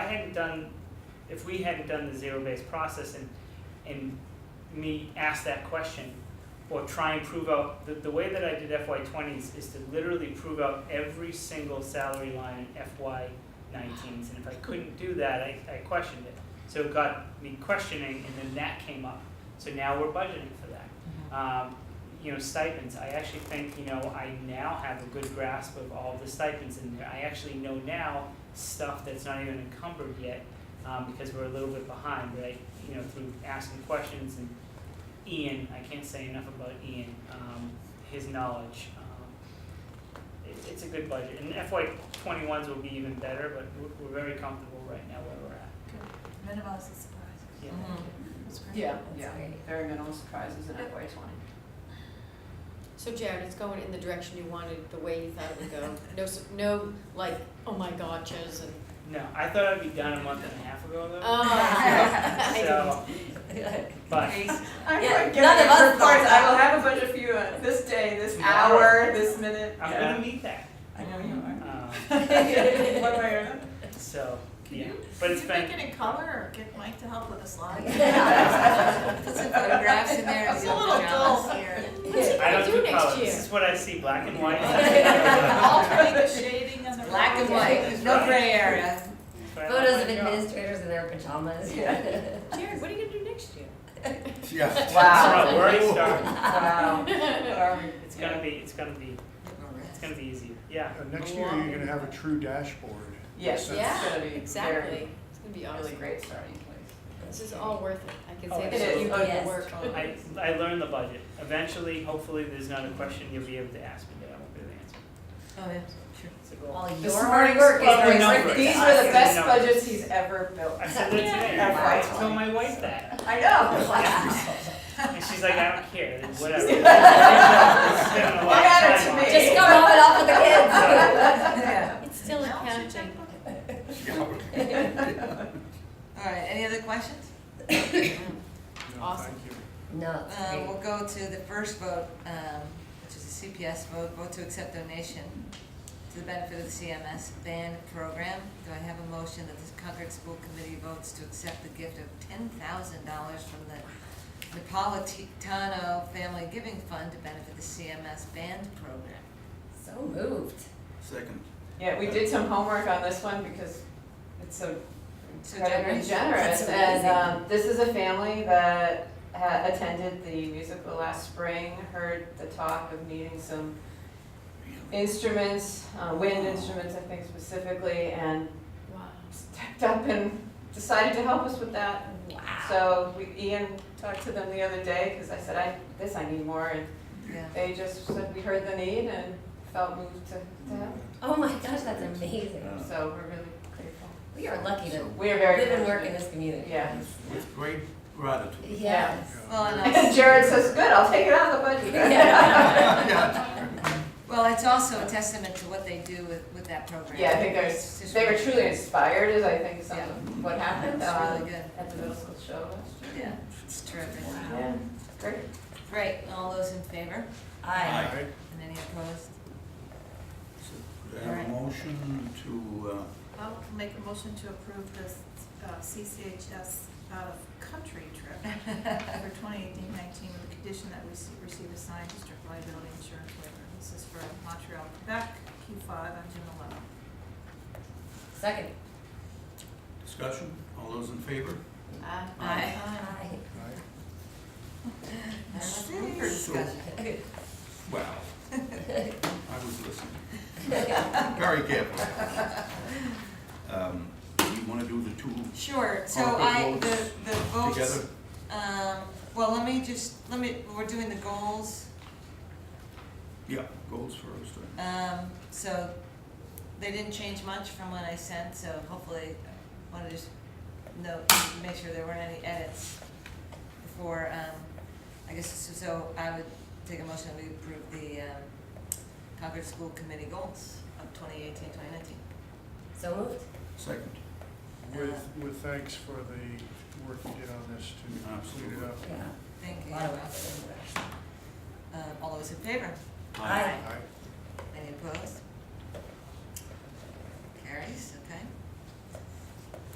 hadn't done, if we hadn't done the zero-based process and, and me ask that question, or try and prove out, the, the way that I did FY twenties is to literally prove out every single salary line in FY nineteens, and if I couldn't do that, I, I questioned it. So it got me questioning, and then that came up, so now we're budgeting for that Uh, um, you know, stipends, I actually think, you know, I now have a good grasp of all the stipends in there. I actually know now stuff that's not even encumbered yet, um, because we're a little bit behind, right? You know, through asking questions and Ian, I can't say enough about Ian, um, his knowledge. Um, It, it's a good budget, and FY twenty-ones will be even better, but we're, we're very comfortable right now where we're at. Minimize the surprises. Yeah. That's great. Yeah, That's yeah, great. very minimal surprises in FY Yeah. twenty. So Jared, it's going in the direction you wanted, the way you thought it would go. No, s- no, like, oh my gotchas and, No, I thought I'd be done a month and a half ago though. oh. I didn't. So, but. I'm Yeah, like, give none me of us reports. thought I will that. have a budget for you uh, this day, this Tomorrow. hour, this minute. I'm Yeah. gonna meet that. I know you are. Um, One way or another. so Can yeah, you, but can it's you make been it in color or get Mike to help with the slides? Yeah. Put some photographs in there. It's a little dull. What's he I gonna don't do do next color. This year? is what I see, black and white. Alternate the shading and the. Black and white, no gray area. Oh Photos of administrators in their pajamas. Yeah. Jared, what are you gonna do next year? Yeah. Wow. We're already starting. Wow. Are we- It's gonna be, it's gonna be, it's gonna be easier. Yeah. Uh, Next year, you're gonna have a true dashboard. Yes, So- it's gonna be Yeah, very- exactly. It's gonna be Really awesome. great starting place. This is all worth it. I can Oh, say It that is. you Oh, did yes. the work. I, I learned the budget. Eventually, hopefully, there's not a question you'll be able to ask me that I won't be able to answer. Oh, yeah. It's a goal. All your This hard morning's- work is Well, worth we know it to it. These us. were the best Yeah. budgets he's ever built. I said that today. Yeah. I told my wife that, I know. and she's like, "I don't care, then whatever." Spending a What lot of mattered time to on me? it. Just go rub it off with the kids. Yeah. It's still accounting. All right, any other questions? No, Awesome. Thank you. No, it's Um, great. we'll go to the first vote, um, which is a CPS vote, vote to accept donation to the benefit of the CMS van program. Do I have a motion that the Concord School Committee votes to accept the gift of ten thousand dollars from the Napolitano Family Giving Fund to benefit the CMS band program? So moved. Second. Yeah, we did some homework on this one because it's so So Very generous. generous, That's and amazing. um, this is a family that ha- attended the musical last spring, heard the talk of needing some instruments, uh, wind instruments, I think specifically, and Wow. stepped up and decided to help us with that. So we, Ian talked to them the other day, because I said, I, this I need more, and Yeah. they just said, we heard the need and felt moved to, to help, Oh my gosh, that's amazing. so we're really grateful. We are lucky to We are very. live and work in fortunate. this community. Yeah. With great gratitude. Yes. Well, and also- And Jared says, good, I'll take it out of the budget. Well, it's also a testament to what they do with, with that program. Yeah, I think It's there's, just they were really- truly inspired is I think some Yeah. of what happened That's um, really good. at the middle school show last Yeah, it's terrific. year. Yeah, great. Great, all those in favor Aye. All right. and any opposed? Could I have a motion to, uh, I'll make a motion to approve this uh, CCHS out-of-country uh, trip for 2018-19 with the condition that we se- receive a signed district liability insurance waiver. This is for Montreal, Quebec, Q5 on June 11. Second. discussion? All those in favor? Aye. Aye. All right. That's room for discussion. Wow. I was listening. Very carefully. Um, you wanna do the two Sure, so All the I, the, votes the together? votes, um, well, let me just, let me, we're doing the goals, Yeah, goals first. uh, um, so they didn't change much from what I sent, so hopefully, I wanna just note, make sure there weren't any edits before, um, I guess, so, so I would take a motion that we approve the, um, Concord School Committee goals of 2018-2019. So moved. Second. With, with thanks for the work you did on this to clean it Absolutely. up. Yeah. Thank A you. lot of work. Uh, all those in favor? Aye. All right. Any opposed? Carries, okay.